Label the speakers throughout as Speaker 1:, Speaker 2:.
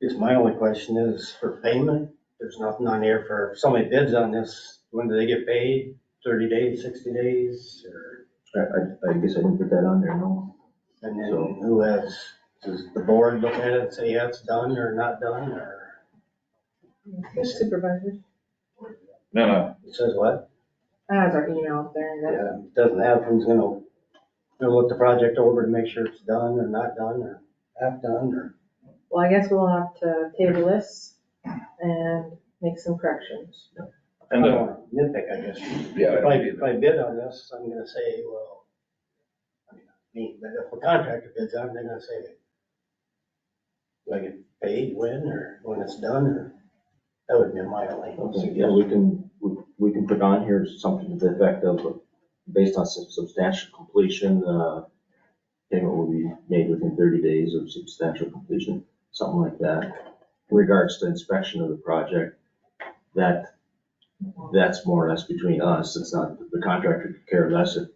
Speaker 1: Because my only question is for payment, there's nothing on here for, if somebody bids on this, when do they get paid? Thirty days, sixty days, or,
Speaker 2: I, I, I guess I didn't put that on there, no.
Speaker 1: and
Speaker 2: So-
Speaker 1: then who has, does the board look at it and say, yeah, it's done or not done, or
Speaker 3: Supervisor.
Speaker 4: No, no,
Speaker 1: it says what?
Speaker 3: That has our email up there and that's
Speaker 1: Yeah, it doesn't have who's gonna, gonna look the project over to make sure it's done or not done, or half done, or.
Speaker 3: Well, I guess we'll have to table this and make some corrections.
Speaker 4: and
Speaker 1: I
Speaker 4: the,
Speaker 3: uh,
Speaker 1: don't wanna Nitpick, I guess.
Speaker 4: yeah, I
Speaker 1: If I,
Speaker 4: don't
Speaker 1: if
Speaker 4: either.
Speaker 1: I bid on this, I'm gonna say, well, I mean, me, but if a contractor bids on it, they're gonna say, do I get paid when, or when it's done, or, that would be my only
Speaker 2: Okay, yeah,
Speaker 1: suggestion.
Speaker 2: we can, we, we can put on here something to the effect of, uh, based on sub- substantial completion, uh, payment will be made within thirty days of substantial completion, something like that. In regards to inspection of the project, that, that's more or less between us, it's not, the contractor could care less if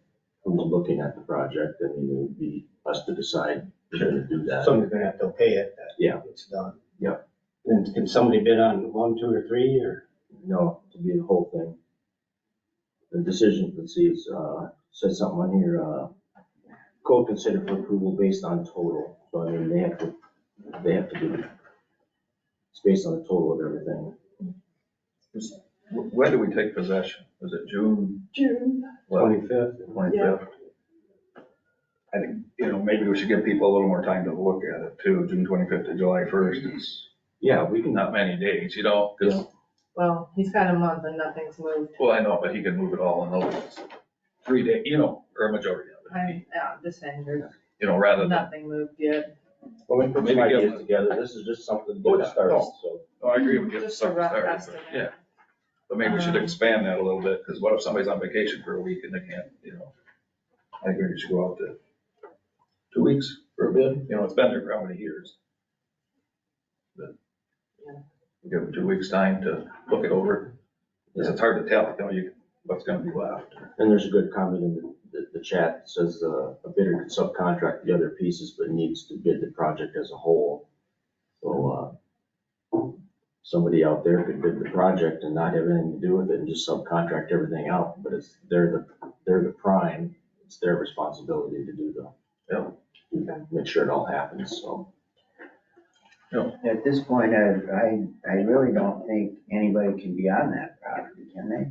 Speaker 2: who's looking at the project, I mean, it would be us to decide if we're gonna do that.
Speaker 1: Somebody's gonna have to pay it, that
Speaker 2: Yeah.
Speaker 1: it's done.
Speaker 2: Yeah.
Speaker 1: And can somebody bid on one, two, or three, or,
Speaker 2: No, it'll be the whole thing. The decision, let's see, it's, uh, says something on here, uh, quote, considered for approval based on total, so I mean, they have to, they have to do it. It's based on the total of everything.
Speaker 4: Wh- When do we take possession? Was it June
Speaker 3: June.
Speaker 1: twenty-fifth?
Speaker 4: twenty-fifth? I think, you know, maybe we should give people a little more time to look at it too, June twenty-fifth to July first, it's
Speaker 2: Yeah, we can,
Speaker 4: not many days, you know, 'cause-
Speaker 2: Yeah.
Speaker 3: Well, he's got a month and nothing's moved.
Speaker 4: well, I know, but he can move it all in those three day, you know, or a majority of it,
Speaker 3: I'm, yeah, just saying, there's
Speaker 4: you know, rather than,
Speaker 3: nothing moved yet.
Speaker 2: well, we can put some
Speaker 4: Maybe give-
Speaker 2: ideas together, this is just something
Speaker 4: Oh,
Speaker 2: to
Speaker 4: yeah,
Speaker 2: get started,
Speaker 4: no.
Speaker 2: so.
Speaker 4: oh, I agree with you.
Speaker 3: Just a rough
Speaker 4: sorry, but
Speaker 3: estimate.
Speaker 4: Yeah, but maybe we should
Speaker 3: Um,
Speaker 4: expand that a little bit, because what if somebody's on vacation for a week and they can't, you know? I agree, we should go out to two weeks for a bid, you know, it's been there for how many years? But Give them two weeks' time to look it over, because it's hard to tell, you know, you, what's gonna be left.
Speaker 2: And there's a good comment in the, the- the chat, that says, uh, a bidder could subcontract the other pieces, but needs to bid the project as a whole. So, uh, somebody out there could bid the project and not have anything to do with it and just subcontract everything out, but it's, they're the, they're the prime, it's their responsibility to do the, make sure it all happens, so.
Speaker 5: At this point, I, I, I really don't think anybody can be on that property, can they?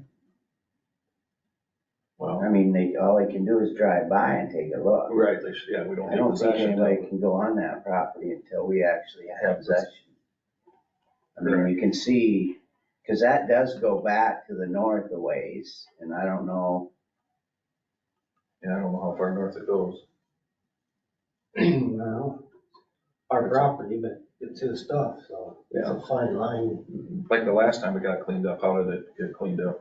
Speaker 2: Well,
Speaker 5: I mean, they, all they can do is drive by and take a look.
Speaker 4: Right, they should, yeah, we don't
Speaker 5: I
Speaker 4: need
Speaker 5: don't think
Speaker 4: possession.
Speaker 5: anybody can go on that property until we actually
Speaker 4: Have
Speaker 5: have
Speaker 4: possession.
Speaker 5: possession. I mean, you can see, because that does go back to the north a ways, and I don't know,
Speaker 4: Yeah, I don't know how far north it goes.
Speaker 1: Well, our property, but it's his stuff, so it's a fine line,
Speaker 4: Like the last time it got cleaned up, how did it get cleaned up?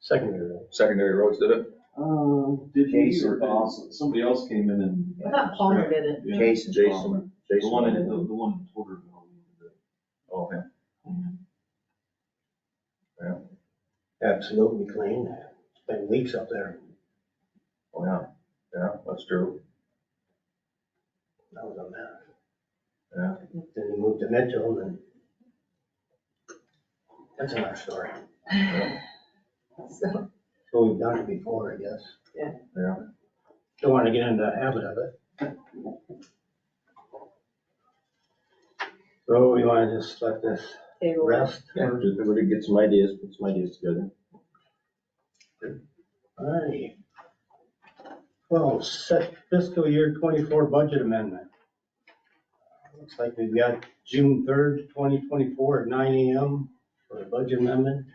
Speaker 1: secondary.
Speaker 4: Secondary roads did it?
Speaker 6: Um, did he
Speaker 5: Jason
Speaker 6: or
Speaker 5: Ball.
Speaker 6: somebody else came in and?
Speaker 3: I thought Palmer did it.
Speaker 6: Yeah.
Speaker 5: Jason Palmer.
Speaker 2: Jason,
Speaker 6: The
Speaker 2: Jason.
Speaker 6: one in, the, the one in Porterville.
Speaker 4: Oh, yeah.
Speaker 1: Absolutely clean. It's been weeks up there.
Speaker 4: Oh, yeah, yeah, that's true.
Speaker 1: That was a mess.
Speaker 4: Yeah.
Speaker 1: Then he moved to Mitchell and that's another story.
Speaker 3: So,
Speaker 1: So we've done it before, I guess.
Speaker 3: Yeah.
Speaker 4: Yeah.
Speaker 1: Don't want to get into the habit of it. So we want to just let this
Speaker 3: table. it.
Speaker 1: rest.
Speaker 2: Yeah,
Speaker 1: All
Speaker 2: just- we're gonna get some ideas, put some ideas together.
Speaker 1: right. Well, set fiscal year twenty-four budget amendment. Looks like we've got June third, twenty twenty-four at nine AM for a budget amendment.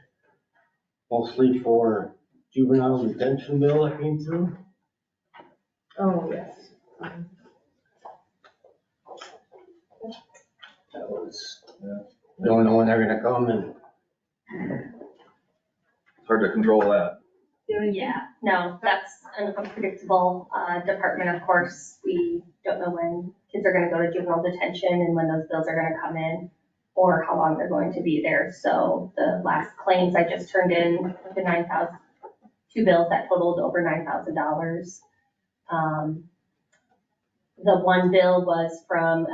Speaker 1: Mostly for juvenile detention bill that came through.
Speaker 3: Oh, yes.
Speaker 1: That was, don't know when they're gonna come and
Speaker 4: It's hard to control that.
Speaker 7: Yeah, no, that's an unpredictable uh, department, of course. We don't know when kids are gonna go to juvenile detention and when those bills are gonna come in or how long they're going to be there. So the last claims I just turned in, the nine thousand, two bills that totaled over nine thousand dollars. The one bill was from